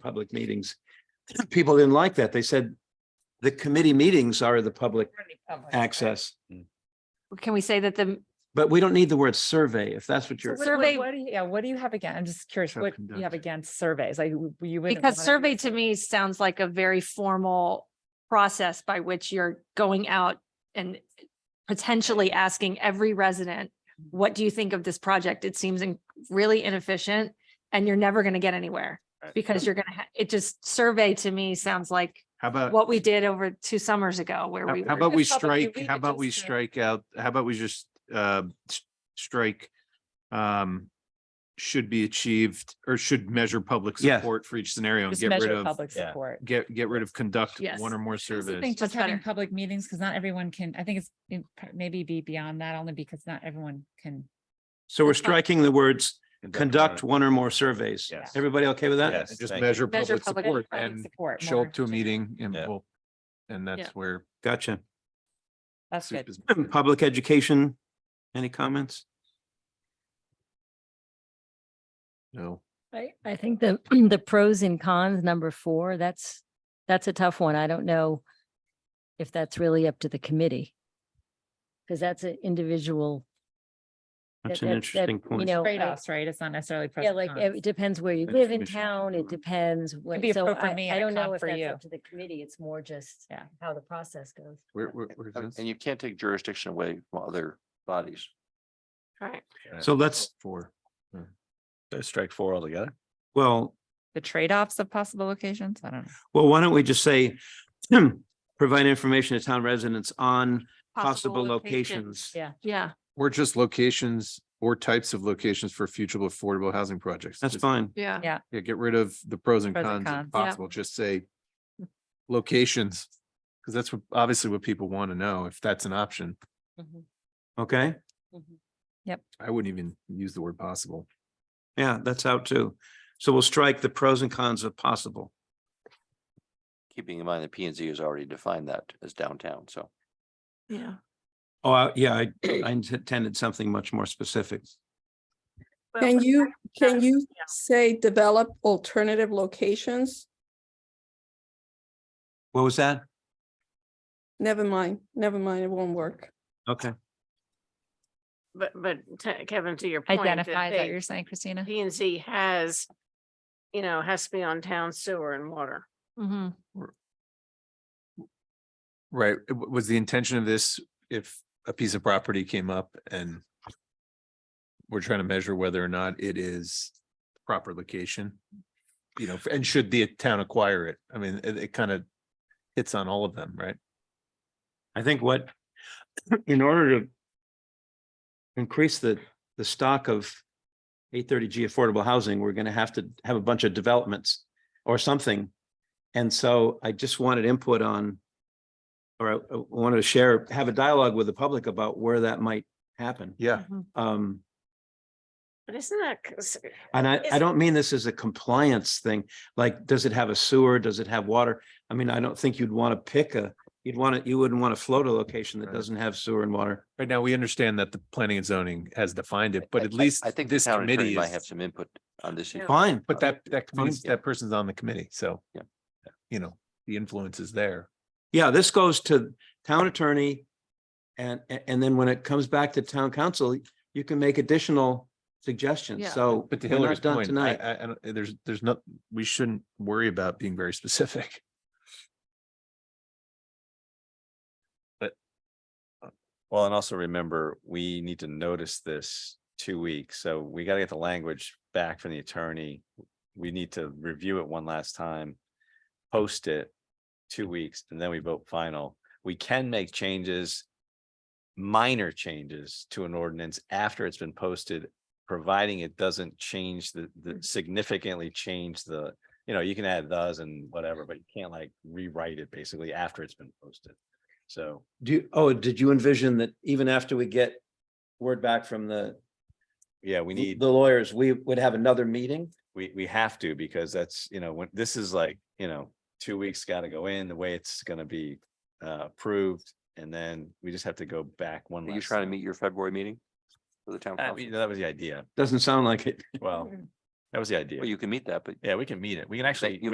public meetings. People didn't like that. They said the committee meetings are the public access. Can we say that the, But we don't need the word survey, if that's what So you're, what- Survey- What what do you, yeah, what do you have again? I'm just curious, Shall what do you conduct. have against surveys, like w- you would. because survey to me sounds like a very formal process by which you're going out and potentially asking every resident, what do you think of this project? It seems in- really inefficient and you're never going to get anywhere Uh, because you're going to, it just, survey to me sounds like How about, what we did over two summers ago where Uh, how we. how were- about we Public strike, review how about we just to- strike out, how about we just uh s- strike? Um, should be achieved or should measure public Yeah. support for each scenario and Just get rid measure of, public Yeah. support. get, get rid of conduct Yes. one or more That's the surveys. thing, Just That's having better. public meetings, because not everyone can, I think it's in- maybe be beyond that only because not everyone can. so we're That's fine. striking the words, conduct one or more surveys. Yes. Everybody okay with that? Yes, Just thank you. measure Measure public public- support public and support show more up to a generally. meeting and Yeah. we'll, and that's where. Gotcha. That's soup good. is- Public education, any comments? No. I, I think the, the pros and cons, number four, that's, that's a tough one. I don't know if that's really up to the committee. Because that's an individual. That's that- an that- that, interesting You point. know, I- Trade-offs, right? It's not necessarily. pros yeah, and like cons. it depends where you That's live in commission. town. It depends. what- be a So pro for I, me I and a don't know con if for that's you. up to the committee. It's more just Yeah. how the process goes. Where, where, where's And this? Oh, and you can't take jurisdiction away from other bodies. Right. So let's, Uh, oh, Four. Strike four altogether. well, The trade-offs of possible locations, I don't know. well, why don't we just say, provide information to town residents on possible locations? Yeah. Yeah, Or just locations or types of locations for future affordable housing projects. That's Just- fine. yeah. Yeah, get rid of the pros and Pros and cons if cons, yeah. possible. Just say locations. Because that's what, obviously what people want to know, if that's an option. Okay, I wouldn't even use the word possible. yeah, that's out too. So we'll strike the pros and cons of possible. Keeping in mind that P and Z has already defined that as downtown, so. Yeah. Oh, I- yeah, I I intended something much more specific. Can you, can that's- you say develop alternative locations? What was that? Never mind, never mind, it won't work. Okay, But, but to- Kevin, to your point. Identify, is that what you're saying, Christina? P and Z has, you know, has to be on town sewer and water. Mm-hmm. Right. It w- Was the intention of this if a piece of property came up and we're trying to measure whether or not it is proper location? You know, and should the town acquire it? I mean, it, it kind of hits on all of them, right? I think what, in order to increase the, the stock of eight thirty G affordable housing, we're gonna have to have a bunch of developments or something. And so I just wanted input on, or I I wanted to share, have a dialogue with the public about where that might happen. Yeah. Mm-hmm. Um, But isn't that, cons- And I, I Is- don't mean this as a compliance thing, like, does it have a sewer? Does it have water? I mean, I don't think you'd want to pick a, you'd want to, you wouldn't want to float a location that Right. doesn't have sewer and water. Right now, we understand that the planning and zoning has defined it, but I- at I- least I think the this town attorney committee might have is, some input on this issue. Fine, but that, that, Fine. means that person's on the committee, so. Yeah. You know, the influence is there. yeah, this goes to town attorney. And, a- and then when it comes back to town council, you can make additional suggestions. Yeah. So But to we're not Hillary's done point, I, tonight. I, I don't, there's, there's not, we shouldn't worry about being very specific. Well, and also remember, we need to notice this two weeks, so we gotta get the language back from the attorney. We need to review it one last time, post it two weeks, and then we vote final. We can make changes, minor changes to an ordinance after it's been posted, providing it doesn't change the, the significantly change the, you know, you can add those and whatever, but you can't like rewrite it basically after it's been posted. So Do, you- oh, did you envision that even after we get word back from the, yeah, we need. the lawyers, we would have another meeting? we we have to because that's, you know, when this is like, you know, two weeks gotta go in, the way it's gonna be uh approved. And then we just have to go back one. Are you last trying to time. meet your February meeting? For the town I council? mean, that was the idea. Doesn't sound like it. Well, that was the Well, idea. you can meet that, but Yeah, we can meet it. We can actually. you